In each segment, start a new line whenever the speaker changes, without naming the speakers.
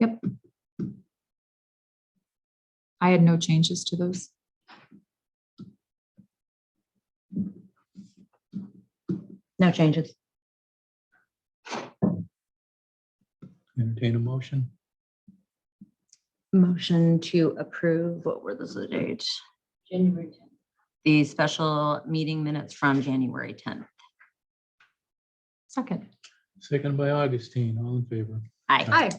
Yep. I had no changes to those.
No changes.
Entertain a motion.
Motion to approve, what were those the date? January 10th. The special meeting minutes from January 10th.
Second.
Second by Augustine, all in favor.
Aye.
Hi.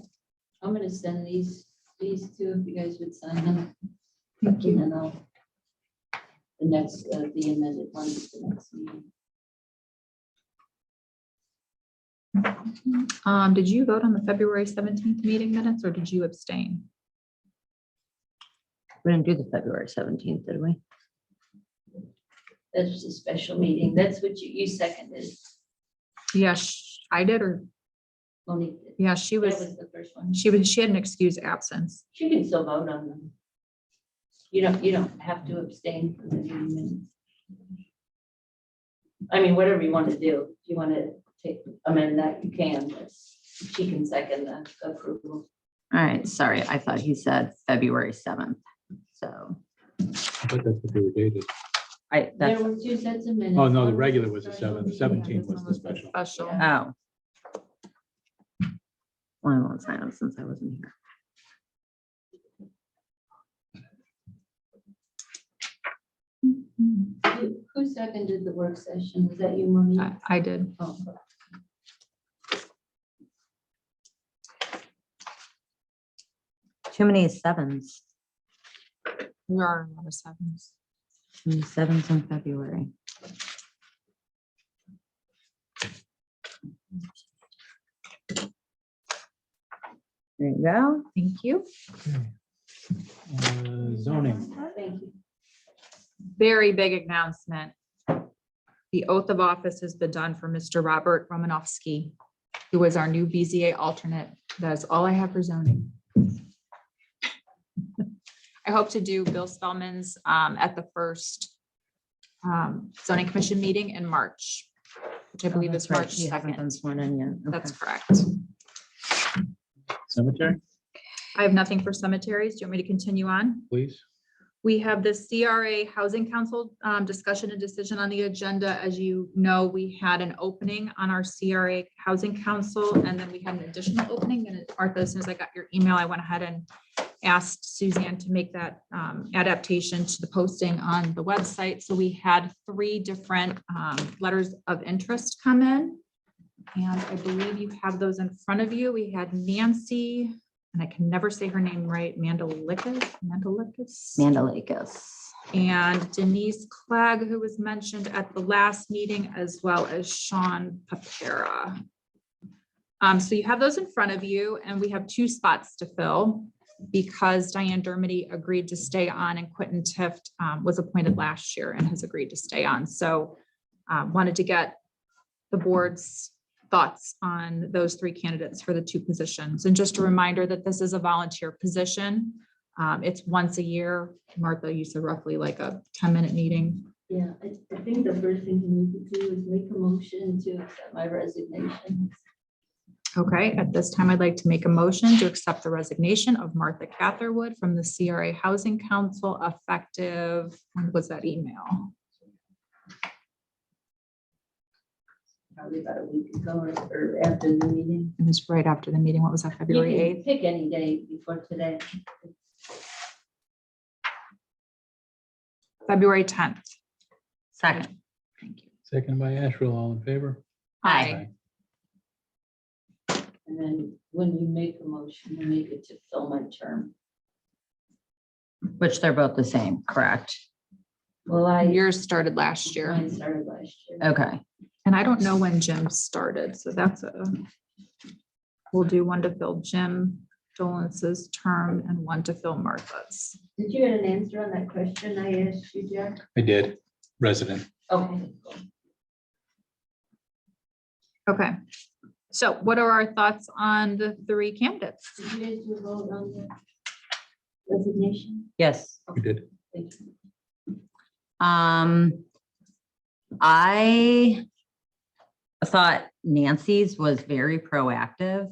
I'm gonna send these, these two, if you guys would sign them.
Thank you.
And then I'll, the next, uh, the amended one, is the next meeting.
Um, did you vote on the February seventeenth meeting minutes or did you abstain?
We didn't do the February 17th, did we?
That's just a special meeting. That's what you, you seconded,
Yes, I did, or,
Monique. did.
yeah, she
That
was,
was the first one.
she was, she had an excused absence.
You can still vote on them. You don't, you don't have to abstain from the meeting minutes. I mean, whatever you want to do. If you want to take, amend that, you can, but she can second the approval.
All right, sorry, I thought he said February 7th. So
I thought that's what they were dated.
I,
There
that's,
were two sets of minutes.
Oh, no, the
One was
regular was the
special
seventh, 17
meeting.
was the
This one
special.
Special.
oh. Well, I won't sign them since I wasn't here.
Who who seconded the work session? Was that you, Monique?
I, I did.
Oh,
Too many sevens,
We are on our sevens.
Too many sevens in February. There you go.
Thank you.
Uh, Zoning,
Thank you.
very big announcement. The oath of office has been done for Mr. Robert Romanowski, who is our new BZA alternate. That is all I have for zoning. I hope to do Bill Spellman's um, at the first um, zoning commission meeting in March, which I believe is
Oh, That's right,
March
you haven't
second.
been sworn in yet. Okay.
That's correct.
cemetery,
I have nothing for cemeteries. Do you want me to continue on?
please.
We have the CRA Housing Council um, discussion and decision on the agenda. As you know, we had an opening on our CRA Housing Council, and then we had an additional opening. And Arthur, as soon as I got your email, I went ahead and asked Suzanne to make that um, adaptation to the posting on the website. So we had three different um, letters of interest come in. And I believe you have those in front of you. We had Nancy, and I can never say her name right, Mandalikas, Mandalikas.
Mandalikis.
And Denise Clegg, who was mentioned at the last meeting, as well as Sean Papera. Um, so you have those in front of you, and we have two spots to fill because Diane Dermody agreed to stay on and Quentin Tift um, was appointed last year and has agreed to stay on. So um, wanted to get the board's thoughts on those three candidates for the two positions. And just a reminder that this is a volunteer position. Um, it's once a year. Martha, you said roughly like a ten-minute meeting.
Yeah, I, I think the first thing you need to do is make a motion to accept my resignation.
Okay, at this time, I'd like to make a motion to accept the resignation of Martha Catherwood from the CRA Housing Council effective, when was that email?
Probably about a week ago or, or after the meeting.
It was right after the meeting. What was that,
You
February
can
eighth?
pick any day before today.
February tenth.
Second.
Thank you.
Second by Asherle, all in favor.
Aye.
And then when you make a motion, you make it to fill my term.
Which they're both the same, correct?
Well, I,
Yours started last year,
mine started last year.
Okay.
and I don't know when Jim started, so that's a, we'll do one to fill Jim Dolan's term and one to fill Martha's.
Did you get an answer on that question I asked you, Jack?
I did, resident.
Okay.
Okay, so what are our thoughts on the three candidates?
Did you guys do a vote on the resignation?
Yes.
We did.
Thank you.
Um, I thought Nancy's was very proactive